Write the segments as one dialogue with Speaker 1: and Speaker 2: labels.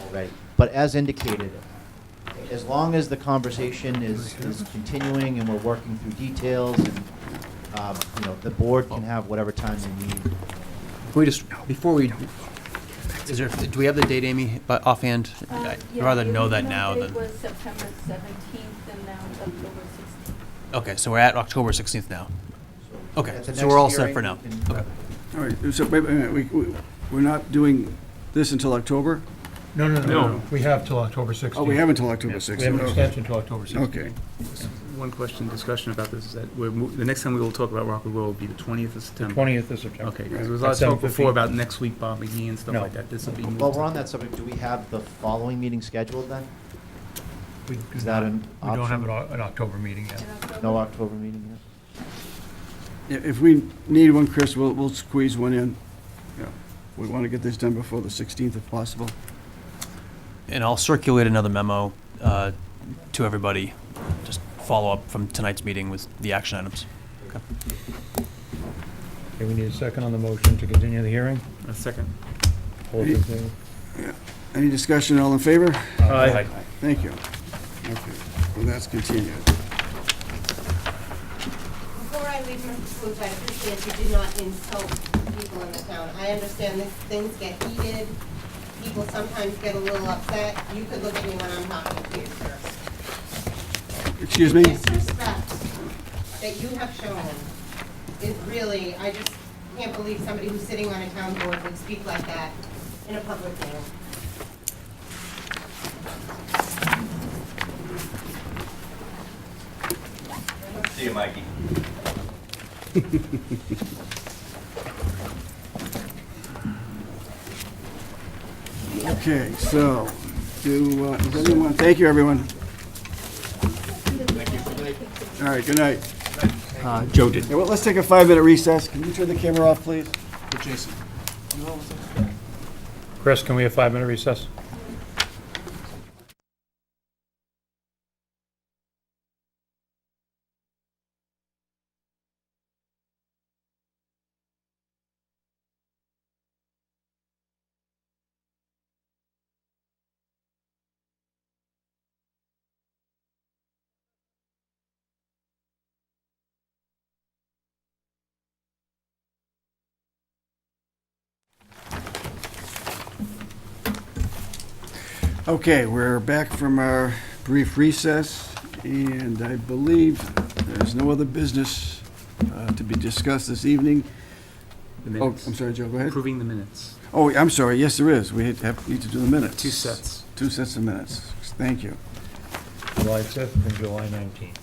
Speaker 1: already. But as indicated, as long as the conversation is, is continuing and we're working through details and, um, you know, the board can have whatever time they need.
Speaker 2: Can we just, before we, is there, do we have the date, Amy, by- offhand?
Speaker 3: Um,
Speaker 2: I'd
Speaker 3: yeah,
Speaker 2: rather
Speaker 3: the
Speaker 2: know that now
Speaker 3: original date
Speaker 2: than,
Speaker 3: was September 17th and now it's October 16th.
Speaker 2: okay, so we're at October 16th now.
Speaker 1: So
Speaker 2: Okay,
Speaker 1: at the
Speaker 2: so
Speaker 1: next
Speaker 2: we're all set
Speaker 1: hearing,
Speaker 2: for now.
Speaker 1: we can-
Speaker 2: Okay.
Speaker 4: All right, so wait, wait, wait, we, we- we're not doing this until October?
Speaker 5: No, no,
Speaker 4: No.
Speaker 5: no, we have till October 16th.
Speaker 4: Oh, we have until October
Speaker 5: We have an
Speaker 4: 6th.
Speaker 5: extension till October 16th.
Speaker 4: Okay,
Speaker 6: One question, discussion about this is that we're, mo- the next time we will talk about Rockland Road will be the 20th of September.
Speaker 5: 20th of September.
Speaker 6: Okay, because there was a
Speaker 5: At
Speaker 6: lot of talk
Speaker 5: 7:15.
Speaker 6: before about next week, Bob McGee and stuff
Speaker 5: No.
Speaker 6: like that. This will be moved.
Speaker 1: While we're on that subject, do we have the following meeting scheduled then?
Speaker 5: We do
Speaker 1: Is that
Speaker 5: not-
Speaker 1: an
Speaker 5: We don't have
Speaker 1: option?
Speaker 5: an Oc- an October meeting yet.
Speaker 3: In October-
Speaker 1: No October meeting yet?
Speaker 4: I- if we need one, Chris, we'll, we'll squeeze one in. Yeah, We want to get this done before the 16th if possible.
Speaker 2: And I'll circulate another memo uh, to everybody, just follow up from tonight's meeting with the action items.
Speaker 5: Okay, we need a second on the motion to continue the hearing.
Speaker 6: A second.
Speaker 5: Hold the thing.
Speaker 4: Any discussion, all in favor?
Speaker 5: Aye.
Speaker 4: Thank you. Okay, well, that's continued.
Speaker 7: Before I leave, Mr. Swoops, I appreciate you do not insult people in the town. I understand this, things get heated, people sometimes get a little upset. You could look at me when I'm talking to you, sir.
Speaker 4: Excuse
Speaker 7: The
Speaker 4: me?
Speaker 7: Disrespect that you have shown is really, I just can't believe somebody who's sitting on a town board would speak like that in a public meeting.
Speaker 8: See you, Mikey.
Speaker 4: Okay, so, do, uh, does anyone, thank you, everyone. All right, good night. Joe did. Well, let's take a five-minute recess. Can you turn the camera off, please? Jason.
Speaker 5: Chris, can we have five-minute recess?
Speaker 4: Okay, we're back from our brief recess, and I believe there's no other business uh, to be discussed this evening.
Speaker 6: The
Speaker 4: Oh, I'm
Speaker 6: minutes.
Speaker 4: sorry, Joe, go ahead.
Speaker 6: Approving the minutes.
Speaker 4: Oh, I'm sorry, yes, there is. We have, need to do the minutes.
Speaker 6: Two sets.
Speaker 4: Two sets of minutes. Thank you.
Speaker 5: July 5th and July 19th.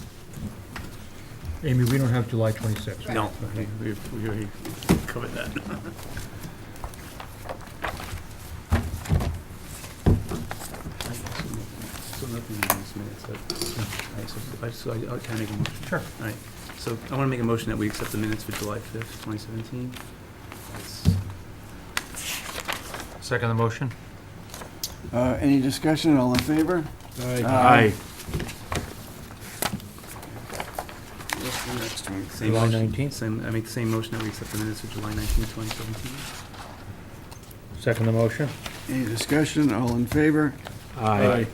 Speaker 5: Amy, we don't have July 26th.
Speaker 6: No, we, we- we already covered that. So nothing in these minutes, but- all right, so I just- so I- I can make a motion.
Speaker 5: Sure.
Speaker 6: All right, so I want to make a motion that we accept the minutes for July 5th, 2017. That's-
Speaker 5: Second the motion?
Speaker 4: Uh, Any discussion, all in favor? Uh, Aye.
Speaker 5: Aye.
Speaker 6: What's the next one? Same
Speaker 5: July
Speaker 6: motion-
Speaker 5: 19th?
Speaker 6: Same, I make the same motion that we accept the minutes for July 19th, 2017.
Speaker 5: Second the motion?
Speaker 4: Any discussion, all in favor?
Speaker 5: Aye.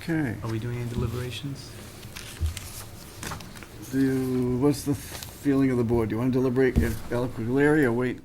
Speaker 4: Okay.
Speaker 6: Are we doing any deliberations?
Speaker 4: Do, what's the feeling of the board? Do you want to deliberate at Alaquilary or wait?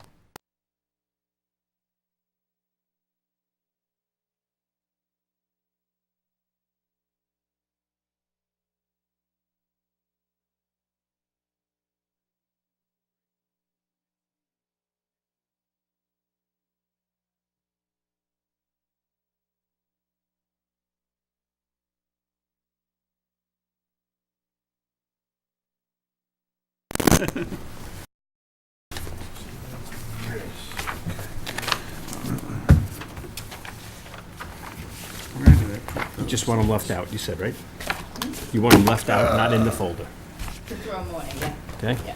Speaker 9: Just want them left out, you said, right? You want them left out, not in the folder,
Speaker 7: To throw morning, yeah.
Speaker 9: okay?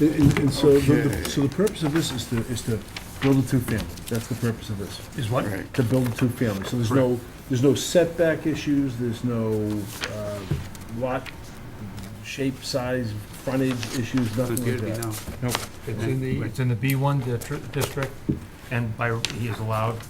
Speaker 10: And, and so, the-
Speaker 4: Okay.
Speaker 10: the, so the purpose of this is to, is to build a two-family, that's the purpose of this,
Speaker 5: Is what?
Speaker 4: Right.
Speaker 10: to build a two-family, so there's no, there's no setback issues, there's no, uh, lot, shape, size, frontage issues,
Speaker 6: Does it
Speaker 10: nothing
Speaker 6: appear to be
Speaker 10: like that.
Speaker 6: no?
Speaker 5: Nope, it's in the, it's in the B1 distri- district, and by, he is allowed